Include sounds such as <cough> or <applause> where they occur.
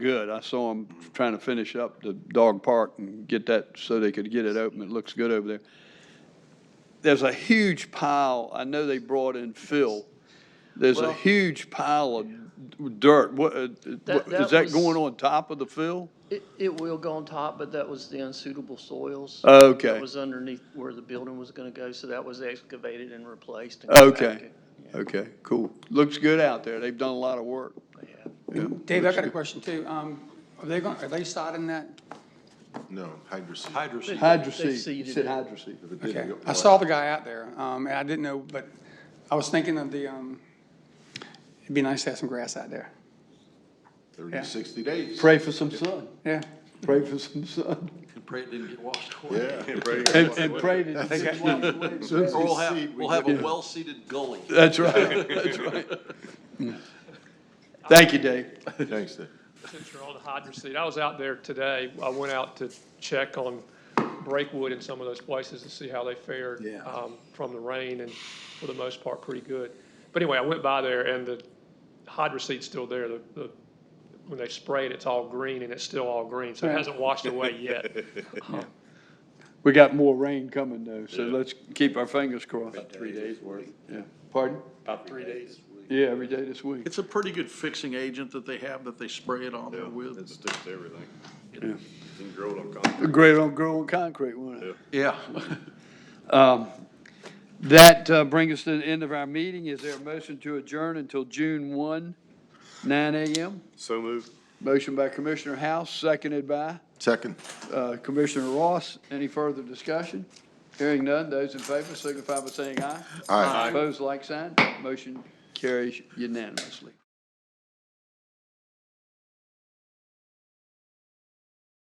good. I saw them trying to finish up the dog park and get that, so they could get it open. It looks good over there. There's a huge pile, I know they brought in fill. There's a Well- huge pile of dirt. What, uh, what- That- is that that was- going on top of the fill? It, it will go on top, but that was the unsuitable soils. Okay. That was underneath where the building was gonna go, so that was excavated and replaced. and Okay, compacted. okay, cool. Looks good out there. They've done a lot of work. Yeah. Yeah. Dave, I got a question too. Um, are they going, are they sodding that? No, hydroseed. They- Hydroseed. Hydro they seed, seeded you said it. hydro seed. If it did, Okay, it I was- saw the guy out there, um, and I didn't know, but I was thinking of the, um, it'd be nice to have some grass out there. 30, yeah. 60 days. Pray for some sun, Yeah. pray for some sun. And pray it didn't get <laughs> washed away. Yeah. And, and pray to. <laughs> Or Seed, we'll we have, we'll have a well-seeded gully. That's right, that's right. Thank you, Dave. Thanks, Dave. Since you're on the hydrant seat, I was out there today. I went out to check on Breakwood and some of those places to see how they fared Yeah. um, from the rain, and for the most part, pretty good. But anyway, I went by there, and the hydrant seat's still there. The, the, when they spray it, it's all green, and it's still all green, so it Right. hasn't washed away yet. We got more rain coming though, so let's keep our fingers crossed. Three days worth. Yeah. Pardon? About three days. Yeah, every day this week. It's a pretty good fixing agent that they have that they spray it on there It with. sticks to everything. Yeah. Didn't grow it on concrete. Great on growing concrete, wasn't it? Yeah. That uh, brings us to the end of our meeting. Is there a motion to adjourn until June 1, 9 a.m.? So moved. Motion by Commissioner House, seconded by Second. uh, Commissioner Ross. Any further discussion? Hearing none, those in favor signify by saying aye. Aye. Opposed, like sign. Motion carries unanimously.